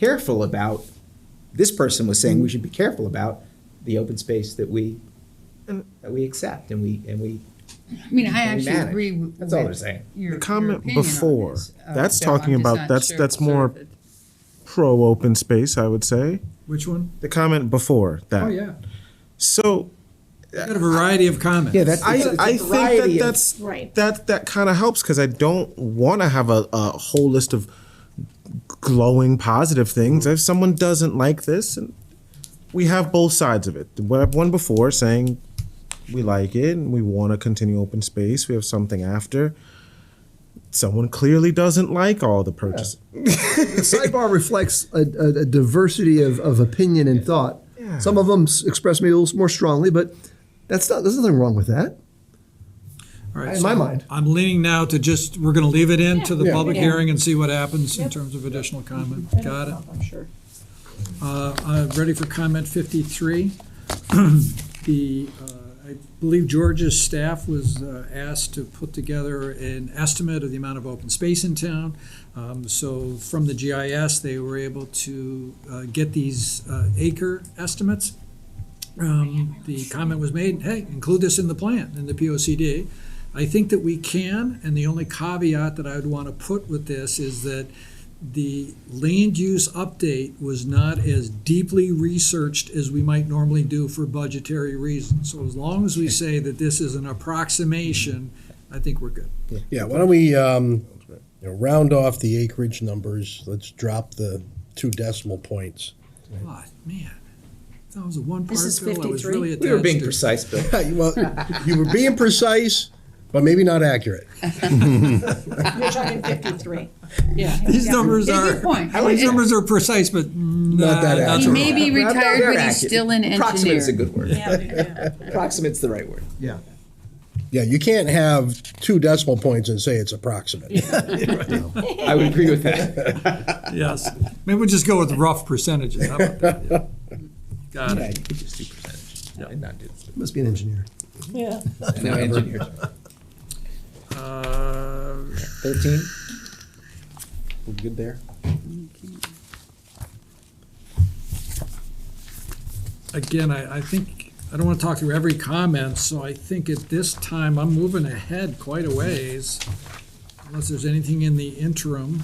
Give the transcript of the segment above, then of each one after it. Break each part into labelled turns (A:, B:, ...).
A: careful about, this person was saying we should be careful about the open space that we, that we accept and we, and we
B: I mean, I
A: and we
B: actually
A: manage.
B: agree with.
A: That's all they're saying.
B: Your,
C: The
B: your
C: comment
B: opinion on
C: before,
B: this, uh,
C: that's
B: Bill. I'm
C: talking
B: just
C: about-
B: not
C: that's-
B: sure
C: that's
B: it's
C: more-
B: sort of a-
C: pro open space, I would say.
D: Which one?
C: The comment before that.
D: Oh, yeah.
C: So
D: You got a variety of comments.
A: Yeah, that's- It's a-
C: I,
A: it's a
C: I think
A: variety
C: that
A: of-
C: that's
E: Right.
C: that that kind of helps because I don't want to have a, a whole list of glowing positive things. If someone doesn't like this, and we have both sides of it. We have one before saying we like it and we want to continue open space. We have something after. Someone clearly doesn't like all the purchases.
F: The sidebar reflects a, a, a diversity of, of opinion and thought.
C: Yeah.
F: Some of them s- express maybe a little more strongly, but that's not, there's nothing wrong with that.
D: All right,
F: In
D: so
F: my mind.
D: I'm leaning now to just, we're gonna leave it in to the
F: Yeah.
D: public
E: Yeah.
D: hearing and see what happens in terms of additional comment. Got it?
E: I'm sure.
D: Uh, I'm ready for comment 53. The, uh, I believe George's staff was uh, asked to put together an estimate of the amount of open space in town. Um, So from the GIS, they were able to uh, get these uh, acre estimates. Um, The comment was made, hey, include this in the plan, in the POCD. I think that we can, and the only caveat that I would want to put with this is that the land use update was not as deeply researched as we might normally do for budgetary reasons. So as long as we say that this is an approximation, I think we're good.
G: Yeah, why don't we, um, you know, round off the acreage numbers, let's drop the two decimal points.
D: Ah, man, that was a one part
E: This is
D: bill, I was
E: 53.
D: really attached
A: We were being
D: to.
A: precise, Bill.
G: Well, you were being precise, but maybe not accurate.
E: You're talking fifty-three.
B: Yeah.
D: These
B: Yeah.
D: numbers
B: It's a good
D: are-
B: point.
D: These
B: Yeah.
D: numbers are precise, but not not
G: that
B: He
G: accurate.
B: may be
A: Well, they're
B: retired, but
A: accurate.
B: he's still an
A: Approximate is a
B: engineer.
A: good word. Approximate's the right word.
F: Yeah.
G: Yeah, you can't have two decimal points and say it's approximate.
A: I would agree with that.
D: Yes, maybe we'll just go with rough percentages, how about that? yeah? Got
A: Yeah,
D: it.
A: you could just do percentage and not do this.
F: Must be an engineer.
E: Yeah.
A: No engineers.
D: Uh,
A: Thirteen? We're good there?
D: again, I, I think, I don't want to talk through every comment, so I think at this time, I'm moving ahead quite a ways, unless there's anything in the interim.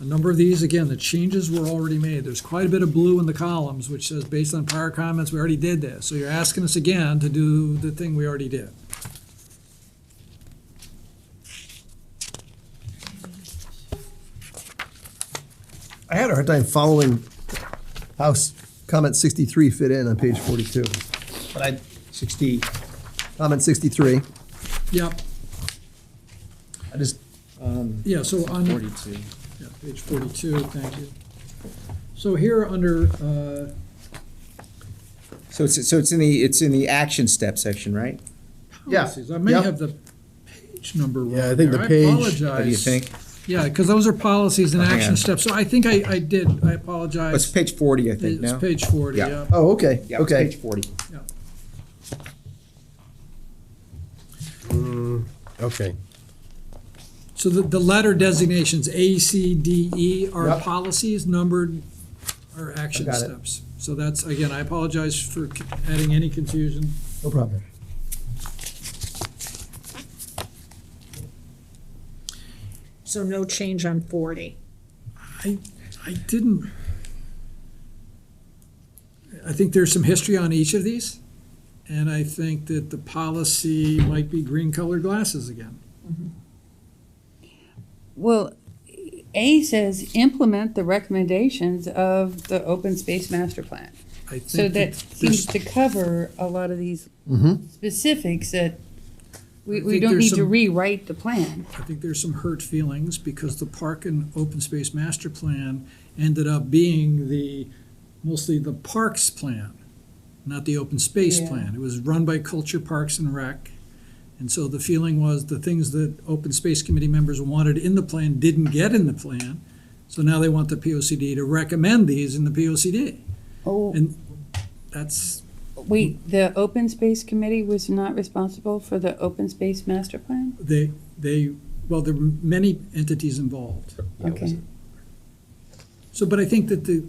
D: A number of these, again, the changes were already made. There's quite a bit of blue in the columns, which says, based on prior comments, we already did this. So you're asking us again to do the thing we already did.
F: I had a hard time following how s- comment 63 fit in on page 42.
A: But I, sixty,
F: Comment 63,
D: Yep,
F: I just,
A: um,
D: yeah, so on.
A: forty-two.
D: Yeah, page forty-two, thank you. So here, under, uh,
A: So it's, so it's in the, it's in the action step section, right?
F: Yeah,
D: policies, I may
F: yeah.
D: have the page number wrong.
G: Yeah, I think the
D: there.
G: page-
D: I
G: What do you
D: apologize.
A: What do you think?
D: Yeah, because those are policies and
A: Oh, hang on.
D: action steps, so I think I, I did, I
A: Oh, It's
D: apologize.
A: page forty, I think,
D: It's
A: now.
D: page forty,
A: Yeah.
D: yeah.
F: oh, okay,
A: Yeah, it's
F: okay.
A: page forty.
G: Okay,
D: So the, the letter designations, A, C, D, E, are
F: Yep.
D: policies numbered, are action
F: got it.
D: steps. So that's, again, I apologize for c- adding any confusion.
F: No problem.
E: So no change on forty.
D: I didn't. I think there's some history on each of these, and I think that the policy might be green colored glasses again.
B: Well, A says implement the recommendations of the open space master plan.
D: I
B: So that
D: think there's-
B: seems to cover a lot of these
A: Mm-hmm.
B: specifics that we,
D: I
B: we
D: think
B: don't
D: there's
B: need to
D: some-
B: rewrite the plan.
D: I think there's some hurt feelings because the park and open space master plan ended up being the, mostly the parks plan, not the open space
B: Yeah.
D: plan. It was run by Culture Parks and Rec. And so the feeling was the things that open space committee members wanted in the plan didn't get in the plan. So now they want the P O C D to recommend these in the P O C D.
B: Oh,
D: And that's,
B: wait, the open space committee was not responsible for the open space master plan?
D: they, they, well, there were many entities involved.
B: Okay.
D: So, but I think that the,